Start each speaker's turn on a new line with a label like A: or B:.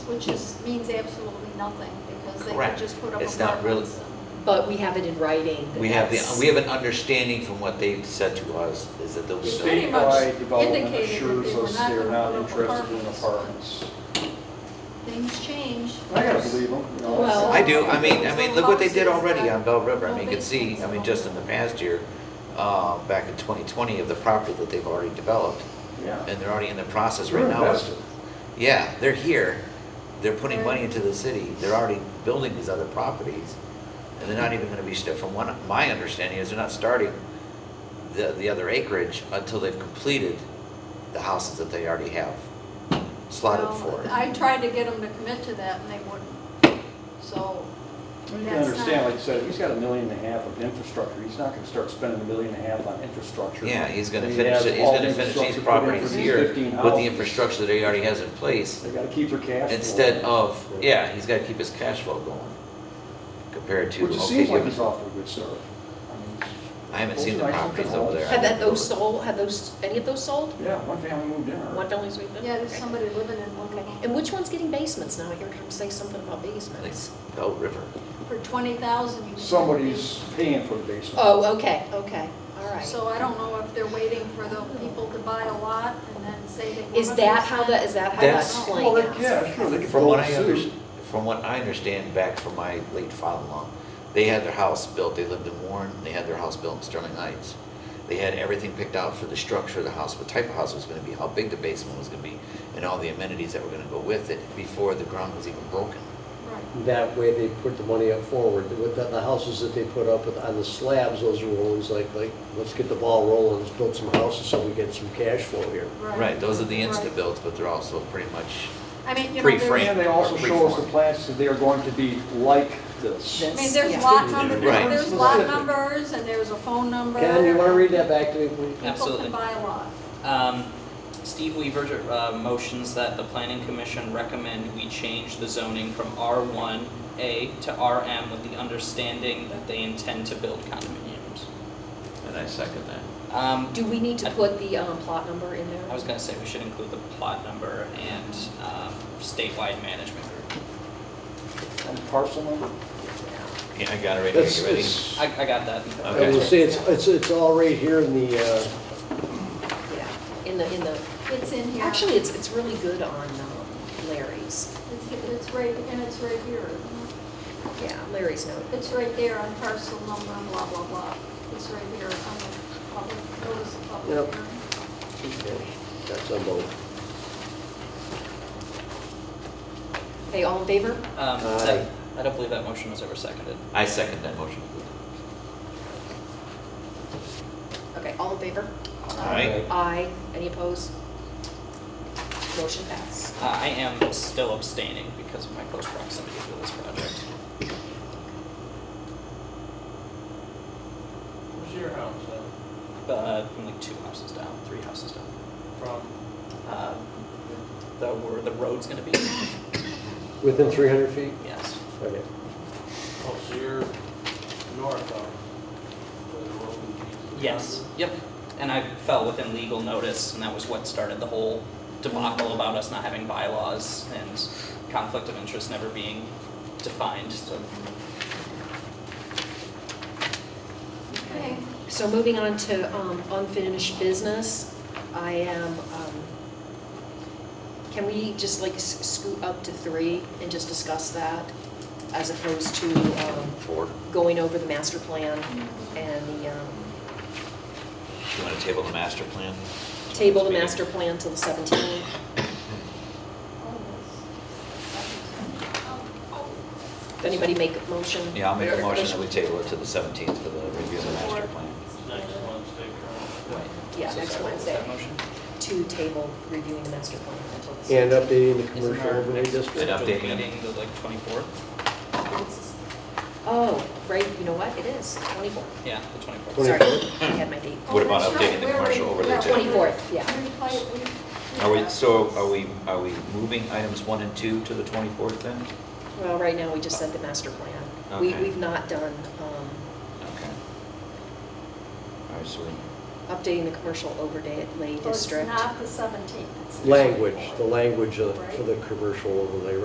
A: which is, means absolutely nothing, because they could
B: Correct.
A: just put up
B: It's not really-
A: apartments and-
C: But we have it in writing. that
B: We have, the
C: that's-
B: we have an understanding from what they've said to us, is that
A: They
B: those,
A: pretty
B: so
A: much
D: Statewide development
A: indicated that
D: assures
A: they were
D: us
A: not
D: they're
A: gonna
D: not
A: put up
D: interested in
A: apartments.
D: apartments.
A: Things change.
D: I gotta believe them, you know.
C: Well-
B: I do, I mean, I mean, look what they did already on Bell River, I mean, you can see, I mean, just in the past year, uh, back in twenty twenty, of the property that they've already developed,
D: Yeah.
B: and they're already in the process
D: We're
B: right now. of-
D: invested.
B: Yeah, they're here, they're putting money into the city, they're already building these other properties, and they're not even gonna be, sta- from one, my understanding is they're not starting the, the other acreage until they've completed the houses that they already have slotted
A: Well,
B: for.
A: I tried to get them to commit to that, and they wouldn't, so.
D: Well, You can
A: that's
D: understand,
A: not-
D: like you said, he's got a million and a half of infrastructure, he's not gonna start spending a million and a half on infrastructure.
B: Yeah, he's gonna
D: He
B: finish,
D: has
B: it. he's
D: all the
B: gonna finish these
D: infrastructure put in for
B: properties
D: these
B: here
D: 15
B: with the
D: houses.
B: infrastructure that he already has in place,
D: They gotta keep their cash. flow.
B: instead of, yeah, he's gotta keep his cash flow going compared to,
D: Which it
B: okay,
D: seems like
B: give
D: he's
B: it-
D: off to a good start. I mean,
B: I haven't seen the
D: Like something
B: properties over there.
D: else.
C: Have that, those sold, have those, any of those sold?
D: Yeah, one family moved in. already.
C: One family's moved in?
A: Yeah, there's
C: Okay.
A: somebody living in one of them.
C: And which one's getting basements now? I heard him say something about basements.
B: It's Belt River.
A: For twenty thousand, you can.
D: Somebody's paying for the basement.
C: Oh, okay, okay, all right.
A: So I don't know if they're waiting for the people to buy a lot and then say they.
C: Is that how that, is that how
B: That's-
C: that's
D: Well,
C: playing
D: they-
C: out?
D: yeah, sure, they could
B: From
D: go
B: what
D: and
B: I
D: sue.
B: understand, from what I understand back from my late father-in-law, they had their house built, they lived in Warren, they had their house built in Sterling Heights. They had everything picked out for the structure of the house, what type of house it was gonna be, how big the basement was gonna be, and all the amenities that were gonna go with it before the ground was even broken.
A: Right.
E: That way they put the money up forward. With the, the houses that they put up with- on the slabs, those are ones like, like, let's get the ball rolling, let's build some houses so we get some cash flow here.
B: Right, those are the
A: Right.
B: insta-builds, but they're also pretty much,
A: I mean, you know,
B: Pre-framed.
A: there's,
D: And they also
B: Or
D: show us the
B: reform.
D: plans that they are going to be like this.
A: I
C: This.
A: mean, there's
C: Yeah.
A: lot number,
B: Right.
A: there's lot
D: Specific.
A: numbers and there's a phone number.
E: Ken, you wanna read that back to me, please?
A: People
F: Absolutely.
A: can buy a lot.
F: Um, Steve Weaver uh, motions that the planning commission recommend we change the zoning from R1A to RM with the understanding that they intend to build condominiums.
B: and I second that.
F: Um,
C: Do we need to put the um, plot number in
F: I
C: there?
F: was gonna say we should include the plot number and um, statewide management group.
D: And parcel number,
B: Yeah, I got it right here,
E: That's-
B: you ready?
E: it's-
F: I, I got that.
E: I
B: Okay.
E: will say, it's, it's, it's all right here in the, uh,
C: Yeah. In the, in the,
A: It's in here.
C: actually, it's, it's really good on um, Larry's.
A: It's, it's right, and it's right here.
C: Yeah, Larry's note.
A: It's right there on parcel number, blah, blah, blah. It's right here on the public, notice of public
E: Yep.
A: hearing.
E: that's on both.
C: Okay, all in favor?
F: Um,
E: Aye.
F: that- I don't believe that motion was ever seconded.
B: I second that motion.
C: Okay, all in favor?
B: All right,
C: Aye. Any opposed? Motion passed.
F: Uh, I am still abstaining because of my close proximity to this project.
G: Where's your house at?
F: Uh, I'm like two houses down, three houses down.
G: From?
F: um, the, where the road's gonna be,
E: Within three hundred feet?
F: yes.
E: Okay.
G: Oh, so you're north of where the road leads.
F: Yep, and I fell within legal notice, and that was what started the whole debacle about us not having bylaws and conflict of interest never being defined, so.
A: Okay.
C: So moving on to um, unfinished business, I am, um, can we just like s- scoot up to three and just discuss that as opposed to um,
B: four,
C: going over the master plan and the, um,
B: you wanna table the master plan?
C: table the master plan till the 17th? Does anybody make a motion?
B: Yeah, I'll make a
C: Or-
B: motion that we table it to the 17th for the review of the master plan.
G: It's next Wednesday, correct?
C: Yeah,
F: So
C: next
F: sorry, what was that
C: Wednesday.
F: motion?
C: To table reviewing the master plan until the 17th.
E: And uh, updating the
F: Isn't
E: commercial
F: our
E: overlay
F: next
E: district.
B: And
F: scheduled
B: updating it.
F: meeting the like twenty-fourth?
C: Oh, right, you know what, it is, 24.
F: Yeah, the twenty-fourth.
C: Sorry,
E: Twenty-
C: I had my date.
B: What about
A: Oh, that's
B: updating the
A: right.
B: commercial
A: We're-
B: overlay
A: we're-
B: district?
C: 24th, yeah.
A: We play it, we-
B: Are we, so are we, are we moving items one and two to the 24th then?
C: Well, right now, we just said the master plan. We,
B: Okay.
C: we've not done um,
B: Okay. All right, so we,
C: updating the commercial overlay
A: Well, It's
C: district.
A: not the seventeenth.
E: Language, the language of- for the uh, commercial overlay